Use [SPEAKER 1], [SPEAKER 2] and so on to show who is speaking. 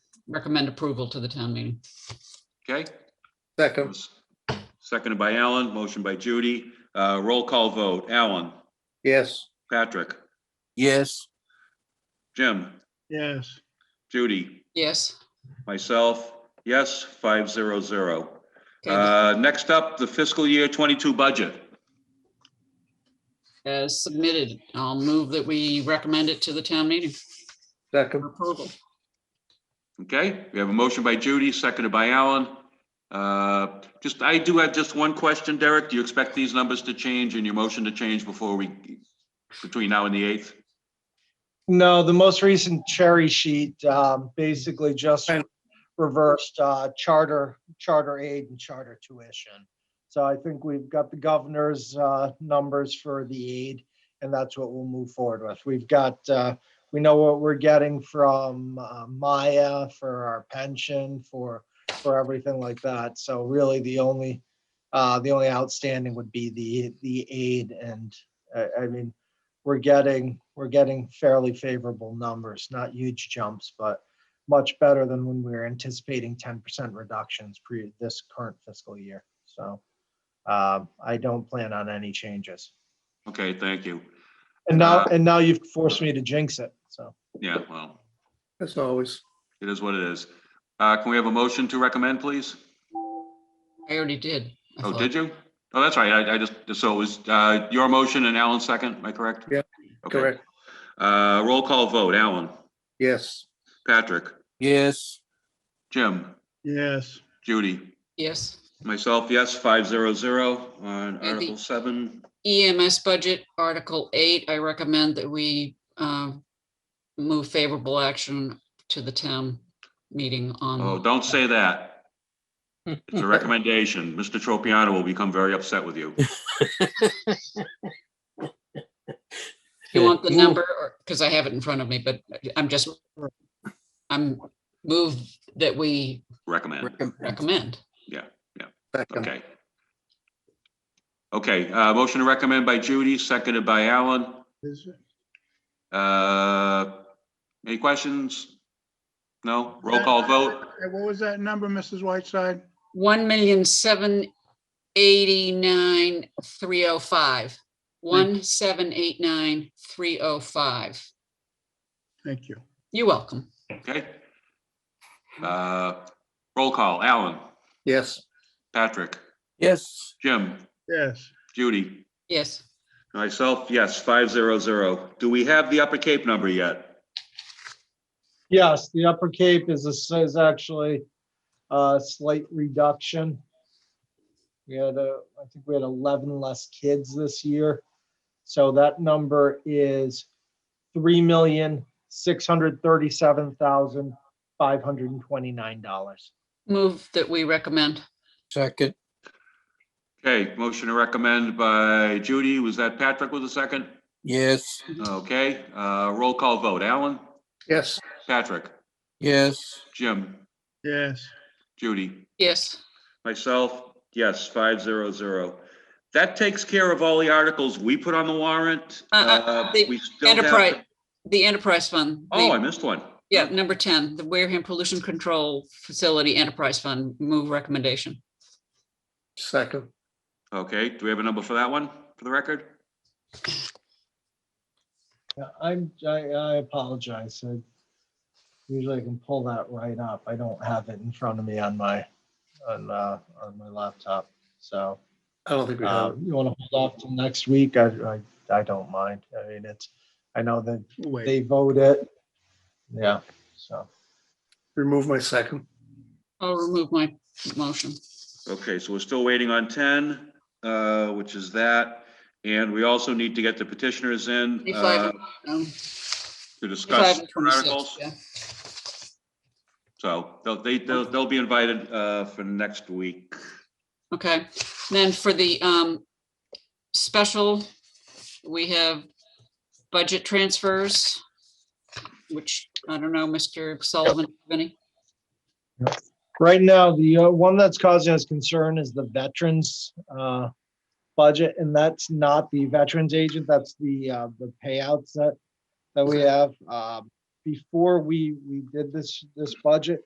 [SPEAKER 1] recommend approval to the town meeting.
[SPEAKER 2] Okay,
[SPEAKER 3] Second,
[SPEAKER 2] seconded by Alan, motion by Judy. Uh, Roll call vote. Alan,
[SPEAKER 3] yes.
[SPEAKER 2] Patrick,
[SPEAKER 4] yes,
[SPEAKER 2] Jim,
[SPEAKER 5] yes,
[SPEAKER 2] Judy,
[SPEAKER 1] Yes.
[SPEAKER 2] myself, yes, five zero zero.
[SPEAKER 1] Okay,
[SPEAKER 2] Uh, Next up, the fiscal year 22 budget.
[SPEAKER 1] As submitted, I'll move that we recommend it to the town meeting
[SPEAKER 3] Second,
[SPEAKER 1] for approval.
[SPEAKER 2] Okay, we have a motion by Judy, seconded by Alan. Uh, Just, I do have just one question, Derek. Do you expect these numbers to change and your motion to change before we, between now and the 8th?
[SPEAKER 6] No, the most recent cherry sheet um, basically just
[SPEAKER 3] Fine.
[SPEAKER 6] reversed uh, charter, charter aid and charter tuition. So I think we've got the governor's uh, numbers for the aid, and that's what we'll move forward with. We've got, uh, we know what we're getting from uh, Maya for our pension, for, for everything like that. So really, the only, uh, the only outstanding would be the, the aid, and uh, I mean, we're getting, we're getting fairly favorable numbers, not huge jumps, but much better than when we were anticipating ten percent reductions pre this current fiscal year. So um, I don't plan on any changes.
[SPEAKER 2] Okay, thank you.
[SPEAKER 6] And now,
[SPEAKER 2] Uh,
[SPEAKER 6] and now you've forced me to jinx it, so.
[SPEAKER 2] Yeah, well,
[SPEAKER 3] as always.
[SPEAKER 2] it is what it is. Uh, Can we have a motion to recommend, please?
[SPEAKER 1] I already did. I
[SPEAKER 2] Oh,
[SPEAKER 1] thought.
[SPEAKER 2] did you? Oh, that's right. I, I just, so it was uh, your motion and Alan's second, am I correct?
[SPEAKER 3] Yeah,
[SPEAKER 2] Okay.
[SPEAKER 3] Correct,
[SPEAKER 2] Uh, Roll call vote, Alan,
[SPEAKER 3] yes.
[SPEAKER 2] Patrick,
[SPEAKER 4] yes,
[SPEAKER 2] Jim,
[SPEAKER 5] yes.
[SPEAKER 2] Judy,
[SPEAKER 1] Yes.
[SPEAKER 2] myself, yes, 500 on
[SPEAKER 1] the-
[SPEAKER 2] Article 7.
[SPEAKER 1] EMS E budget, Article 8, I recommend that we um, move favorable action to the town meeting
[SPEAKER 2] Oh,
[SPEAKER 1] on,
[SPEAKER 2] don't say that. It's a recommendation. Mr. Tropiano will become very upset with you.
[SPEAKER 1] you want the
[SPEAKER 4] Ooh.
[SPEAKER 1] number, because I have it in front of me, but I'm just, I'm move that we
[SPEAKER 2] Recommend,
[SPEAKER 4] recommend,
[SPEAKER 1] recommend.
[SPEAKER 3] Second,
[SPEAKER 2] okay. Okay, uh, motion to recommend by Judy, seconded by Alan.
[SPEAKER 5] Is-
[SPEAKER 2] Uh, Any questions? No? Roll call vote?
[SPEAKER 5] Hey, What was that number, Mrs. Whiteside?
[SPEAKER 1] One million seven eighty-nine three oh five. One seven eight nine three oh five.
[SPEAKER 5] Thank you.
[SPEAKER 1] You're welcome.
[SPEAKER 2] Okay. Uh, Roll call, Alan,
[SPEAKER 3] yes.
[SPEAKER 2] Patrick,
[SPEAKER 4] yes,
[SPEAKER 2] Jim,
[SPEAKER 5] Yes,
[SPEAKER 2] Judy,
[SPEAKER 1] Yes,
[SPEAKER 2] myself, yes, 500. Do we have the Upper Cape number yet?
[SPEAKER 6] Yes, the Upper Cape is, a- is actually a slight reduction. We had a, I think we had 11 less kids this year. So that number is 3637529 dollars.
[SPEAKER 1] move that we recommend.
[SPEAKER 4] second,
[SPEAKER 2] Okay, motion to recommend by Judy. Was that Patrick with a second?
[SPEAKER 4] yes,
[SPEAKER 2] Okay, uh, roll call vote. Alan,
[SPEAKER 3] Yes,
[SPEAKER 2] Patrick,
[SPEAKER 4] yes,
[SPEAKER 2] Jim,
[SPEAKER 5] yes,
[SPEAKER 2] Judy,
[SPEAKER 1] Yes,
[SPEAKER 2] myself, yes, 500. That takes care of all the articles we put on the warrant.
[SPEAKER 1] Uh, uh,
[SPEAKER 2] Uh,
[SPEAKER 1] the
[SPEAKER 2] we still have to-
[SPEAKER 1] enterprise, the enterprise fund. the-
[SPEAKER 2] Oh, I missed one.
[SPEAKER 1] Yeah, number ten, the Wareham Pollution Control Facility Enterprise Fund, move recommendation.
[SPEAKER 3] second,
[SPEAKER 2] Okay, do we have a number for that one, for the record?
[SPEAKER 6] I'm, I, I apologize. I- Usually I can pull that right up. I don't have it in front of me on my, on, uh, on my laptop. So.
[SPEAKER 3] I don't think we have.
[SPEAKER 6] Uh,
[SPEAKER 3] it.
[SPEAKER 6] You want to hold off till next week? I, I, I don't mind. I mean, it's, I know that
[SPEAKER 5] wait,
[SPEAKER 6] they vote it. Yeah, so.
[SPEAKER 3] Remove my second,
[SPEAKER 1] I'll remove my motion.
[SPEAKER 2] Okay, so we're still waiting on 10, uh, which is that. And we also need to get the petitioners in uh,
[SPEAKER 1] Twenty-five, um,
[SPEAKER 2] to
[SPEAKER 1] twenty-five
[SPEAKER 2] discuss
[SPEAKER 1] and
[SPEAKER 2] articles.
[SPEAKER 1] twenty-six, yeah.
[SPEAKER 2] So they'll, they, they'll, they'll be invited, uh, for next week.
[SPEAKER 1] Okay, then for the um special, we have budget transfers, which I don't know, Mr. Sullivan, have any?
[SPEAKER 6] Right now, the uh, one that's causing us concern is the veterans, uh, budget, and that's not the veterans agent, that's the, uh, the payouts that, that we have. Um, Before we, we did this, this budget,